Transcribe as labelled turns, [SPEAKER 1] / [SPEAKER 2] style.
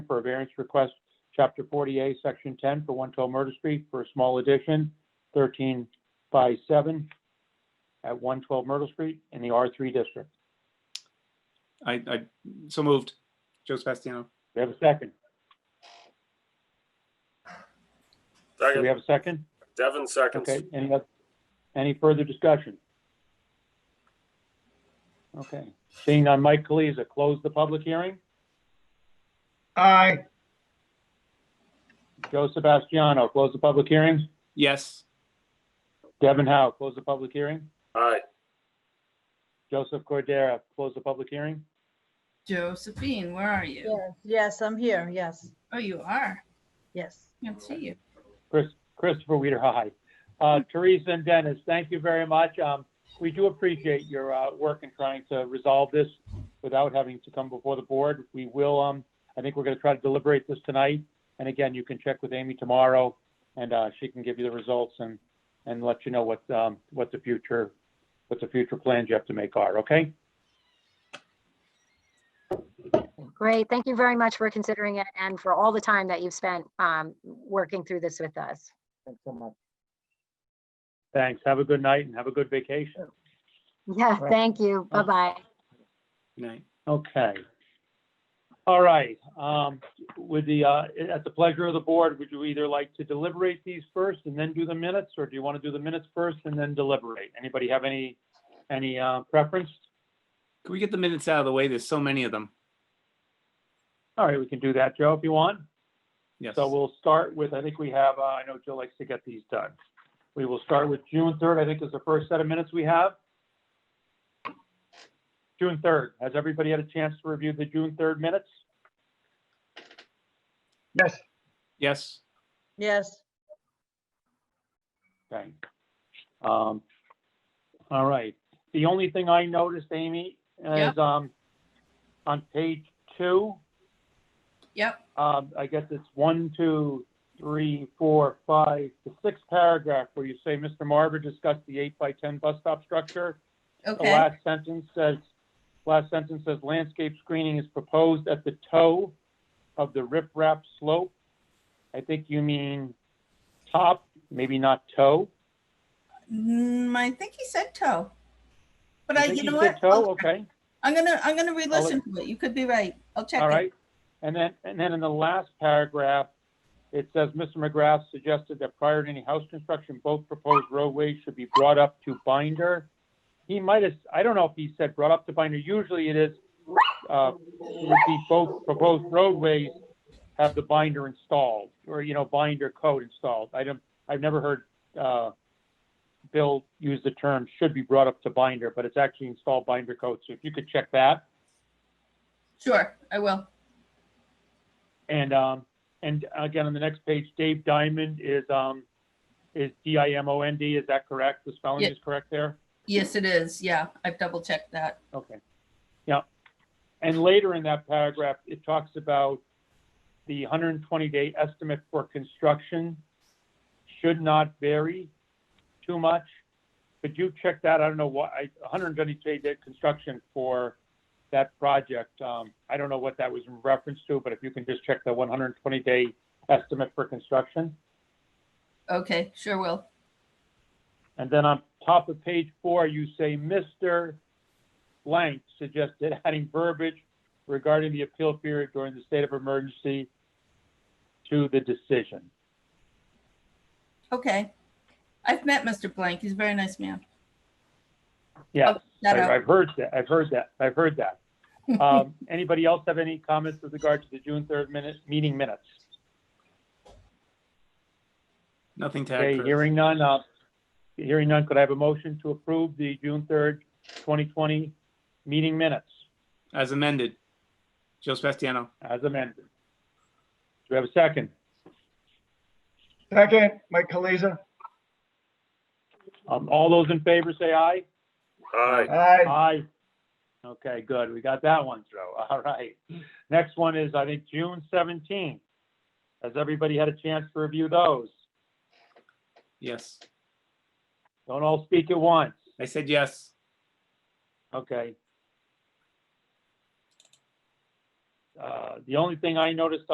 [SPEAKER 1] for a variance request, Chapter 40A, Section 10, for 112 Murder Street for a small addition, 13 by 7, at 112 Myrtle Street in the R3 district.
[SPEAKER 2] I, I, so moved. Joe Sebastiano.
[SPEAKER 1] We have a second. Do we
[SPEAKER 3] Second,
[SPEAKER 1] have a second?
[SPEAKER 3] Devin seconds.
[SPEAKER 1] Okay, any, oth- any further discussion? Okay, seeing on Mike Kaliza, close the public hearing.
[SPEAKER 4] Aye,
[SPEAKER 1] Joe Sebastiano, close the public hearing.
[SPEAKER 2] Yes.
[SPEAKER 1] Devin Howe, close the public hearing.
[SPEAKER 3] Aye,
[SPEAKER 1] Joseph Cordera, close the public hearing.
[SPEAKER 5] Josephine, where are you?
[SPEAKER 6] Yes, Yes, I'm here, yes,
[SPEAKER 5] Oh, you are.
[SPEAKER 6] yes.
[SPEAKER 5] Can't see you.
[SPEAKER 1] Chris, Christopher Weider, hi. Uh, Teresa and Dennis, thank you very much. Um, we do appreciate your, uh, work in trying to resolve this without having to come before the board. We will, um, I think we're gonna try to deliberate this tonight. And again, you can check with Amy tomorrow and, uh, she can give you the results and, and let you know what, um, what the future, what the future plans you have to make are, okay?
[SPEAKER 7] Great. Thank you very much for considering it and for all the time that you've spent um, working through this with us.
[SPEAKER 4] thanks so much.
[SPEAKER 1] Thanks. Have a good night and have a good vacation.
[SPEAKER 7] Yeah,
[SPEAKER 4] Right.
[SPEAKER 7] thank you.
[SPEAKER 1] Oh.
[SPEAKER 7] Bye-bye.
[SPEAKER 2] Good night.
[SPEAKER 1] Okay. All right, um, with the, uh, at the pleasure of the board, would you either like to deliberate these first and then do the minutes? Or do you want to do the minutes first and then deliberate? Anybody have any, any, uh, preference?
[SPEAKER 2] Can we get the minutes out of the way? There's so many of them.
[SPEAKER 1] All right, we can do that, Joe, if you want.
[SPEAKER 2] Yes.
[SPEAKER 1] So we'll start with, I think we have, uh, I know Joe likes to get these done. We will start with June third, I think is the first set of minutes we have. June third, has everybody had a chance to review the June third minutes?
[SPEAKER 4] Yes,
[SPEAKER 2] Yes.
[SPEAKER 6] Yes,
[SPEAKER 1] Okay. Um, all right. The only thing I noticed, Amy,
[SPEAKER 5] Yeah.
[SPEAKER 1] is, um, on page two,
[SPEAKER 5] Yep,
[SPEAKER 1] um, I guess it's one, two, three, four, five, the sixth paragraph where you say, Mr. Marver discussed the eight by ten bus stop structure. The
[SPEAKER 5] okay,
[SPEAKER 1] last sentence says, last sentence says landscape screening is proposed at the toe of the riprap slope. I think you mean top, maybe not toe.
[SPEAKER 5] Mm, I think he said toe. But
[SPEAKER 1] I
[SPEAKER 5] I,
[SPEAKER 1] think
[SPEAKER 5] you know
[SPEAKER 1] you said
[SPEAKER 5] what?
[SPEAKER 1] toe,
[SPEAKER 5] I'll-
[SPEAKER 1] okay,
[SPEAKER 5] I'm gonna, I'm gonna re-listen to it, you could be right, I'll check
[SPEAKER 1] all
[SPEAKER 5] it.
[SPEAKER 1] right. And then, and then in the last paragraph, it says, Mr. McGrath suggested that prior to any house construction, both proposed roadways should be brought up to binder. He might have, I don't know if he said brought up to binder, usually it is, uh, would be both proposed roadways have the binder installed, or, you know, binder code installed. I don't, I've never heard, uh, Bill use the term should be brought up to binder, but it's actually installed binder code, so if you could check that.
[SPEAKER 5] Sure, I will,
[SPEAKER 1] And, um, and again, on the next page, Dave Diamond is, um, is D I M O N D, is that correct? The spelling
[SPEAKER 5] Yeah.
[SPEAKER 1] is correct there?
[SPEAKER 5] yes, it is, yeah, I've double checked that.
[SPEAKER 1] Okay. Yeah. And later in that paragraph, it talks about the hundred and twenty day estimate for construction should not vary too much. Could you check that? I don't know why, I, hundred and twenty day day construction for that project. Um, I don't know what that was in reference to, but if you can just check the one hundred and twenty day estimate for construction.
[SPEAKER 5] Okay, sure will,
[SPEAKER 1] And then on top of page four, you say, Mr. Blank suggested adding verbiage regarding the appeal period during the state of emergency to the decision.
[SPEAKER 5] okay. I've met Mr. Blank, he's a very nice man.
[SPEAKER 1] Yes,
[SPEAKER 5] I'll check that
[SPEAKER 1] I-
[SPEAKER 5] out.
[SPEAKER 1] I've heard that, I've heard that, I've heard that. Um, Anybody else have any comments with regard to the June 3rd minute, meeting minutes?
[SPEAKER 2] Nothing to add.
[SPEAKER 1] Okay,
[SPEAKER 2] Chris.
[SPEAKER 1] hearing none, uh, hearing none, could I have a motion to approve the June 3rd, 2020 meeting minutes
[SPEAKER 2] As amended. Joe Sebastiano.
[SPEAKER 1] as amended? Do we have a second?
[SPEAKER 4] second, Mike Kaliza.
[SPEAKER 1] Um, All those in favor say aye.
[SPEAKER 3] aye.
[SPEAKER 4] Aye,
[SPEAKER 1] Aye. Okay, good. We got that one through. All right. Next one is, I think, June seventeenth. Has everybody had a chance to review those?
[SPEAKER 2] Yes.
[SPEAKER 1] Don't all speak at once.
[SPEAKER 2] I said yes.
[SPEAKER 1] Okay. Uh, The only thing I noticed